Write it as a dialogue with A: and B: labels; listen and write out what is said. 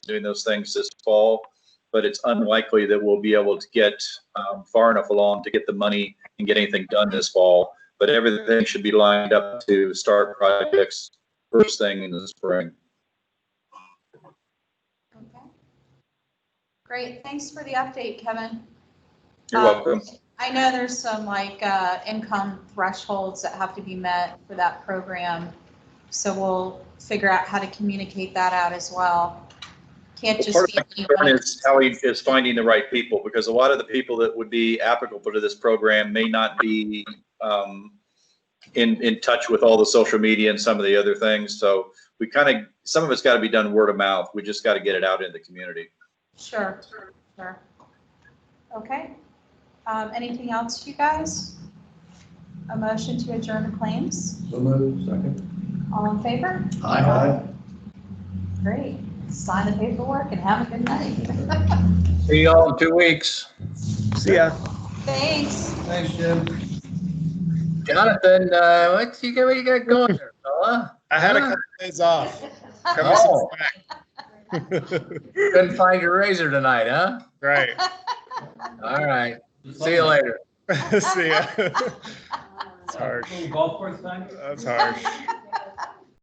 A: doing those things this fall, but it's unlikely that we'll be able to get um, far enough along to get the money and get anything done this fall. But everything should be lined up to start projects first thing in the spring.
B: Okay. Great, thanks for the update, Kevin.
A: You're
B: Um,
A: welcome.
B: I know there's some like uh, income thresholds that have to be met for that program, so we'll figure out how to communicate that out as well. Can't
A: Well,
B: just
A: Part
B: be.
A: of my concern
B: anyone.
A: is how he is finding the right people, because a lot of the people that would be applicable to this program may not be um, in, in touch with all the social media and some of the other things. So we kind of, some of it's got to be done word of mouth. We just got to get it out in the community.
B: Sure, sure. Okay. Um, Anything else, you guys? A motion to adjourn the claims?
C: So moved, second.
B: All in favor?
C: Aye.
B: Great. Sign the paperwork and have a good night.
D: See y'all in two weeks.
C: See ya.
B: Thanks.
C: Thanks, Jim.
D: Jonathan, uh, what you got, what you got going there, fella?
E: I had a
D: Huh?
E: couple days off. Cut me
D: Oh.
E: some slack.
D: Couldn't find your razor tonight, huh?
E: right.
D: All right. See you later.
E: See ya. it's harsh.
F: Golf course time?
E: That's harsh.